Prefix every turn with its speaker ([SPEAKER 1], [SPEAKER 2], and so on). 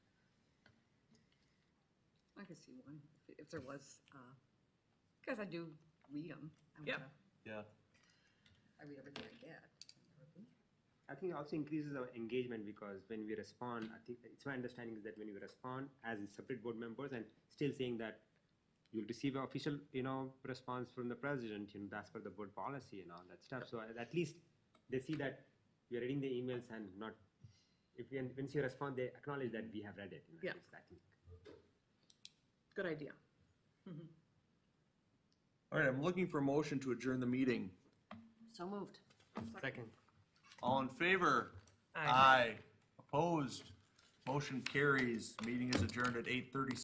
[SPEAKER 1] could see one, if- if there was, uh, because I do read them.
[SPEAKER 2] Yeah.
[SPEAKER 3] Yeah.
[SPEAKER 1] uh, I read everything I get.
[SPEAKER 4] I think it also increases our engagement because when we respond, I think it's my understanding is that when you respond as separate board members and still saying that you'll receive an official, you know, response from the president, you know, that's per the board policy and all that stuff. So uh, at- at least they see that you're reading the emails and not, if you, once you respond, they acknowledge that we have read it. you know, at
[SPEAKER 1] Yeah.
[SPEAKER 4] least I think.
[SPEAKER 1] Good idea.
[SPEAKER 3] All right, I'm looking for a motion to adjourn the meeting.
[SPEAKER 1] So moved.
[SPEAKER 5] Second.
[SPEAKER 3] All in favor?
[SPEAKER 2] Aye.
[SPEAKER 3] Opposed? Motion carries. Meeting is adjourned at eight thirty.